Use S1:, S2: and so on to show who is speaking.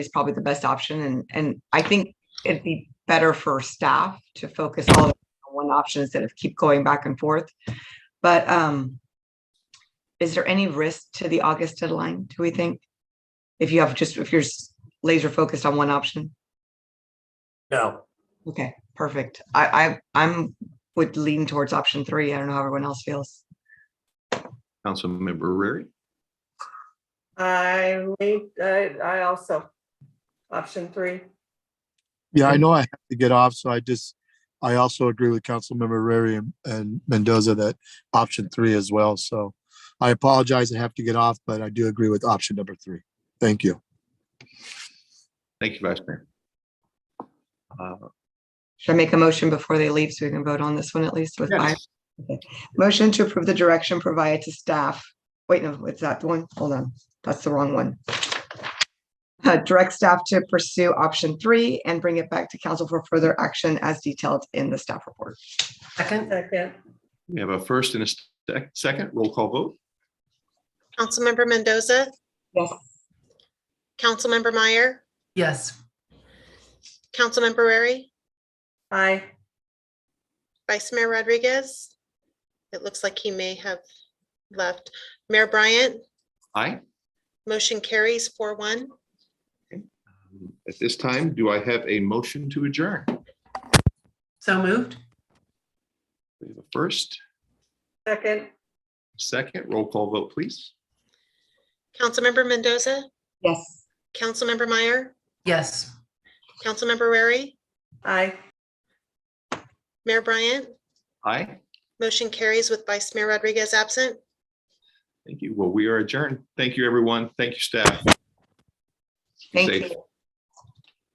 S1: is probably the best option and, and I think it'd be better for staff to focus all on one option instead of keep going back and forth. But, um, is there any risk to the August deadline, do we think? If you have just, if you're s- laser focused on one option?
S2: No,
S1: Okay, perfect. I, I, I'm, would lean towards option three. I don't know how everyone else feels.
S3: Councilmember Rary,
S4: I, lean- I, I also, option three.
S5: Yeah, I know I have to get off, so I just, I also agree with Councilmember Rary and- and Mendoza that option three as well, so I apologize, I have to get off, but I do agree with option number three. Thank you.
S3: thank you, Vice Mayor. Uh,
S1: Should I make a motion before they leave so we can vote on this one at least with five?
S3: yes,
S1: Motion to approve the direction provided to staff. Wait, no, it's that one. Hold on. That's the wrong one. Uh, direct staff to pursue option three and bring it back to council for further action as detailed in the staff report.
S2: second,
S4: Second,
S3: We have a first and a sec- second roll call vote.
S6: Councilmember Mendoza,
S1: Yes.
S6: Councilmember Meyer,
S7: Yes,
S6: Councilmember Rary,
S4: aye.
S6: Vice Mayor Rodriguez. It looks like he may have left. Mayor Bryant,
S3: Aye.
S6: motion carries four one.
S3: At this time, do I have a motion to adjourn?
S7: so moved.
S3: We have a first,
S4: Second,
S3: second roll call vote, please.
S6: Councilmember Mendoza,
S1: Yes.
S6: Councilmember Meyer,
S7: Yes.
S6: Councilmember Rary,
S4: aye.
S6: Mayor Bryant,
S3: Aye.
S6: motion carries with Vice Mayor Rodriguez absent.
S3: Thank you. Well, we are adjourned. Thank you, everyone. Thank you, staff. Stay
S1: Thank
S3: safe.
S1: you.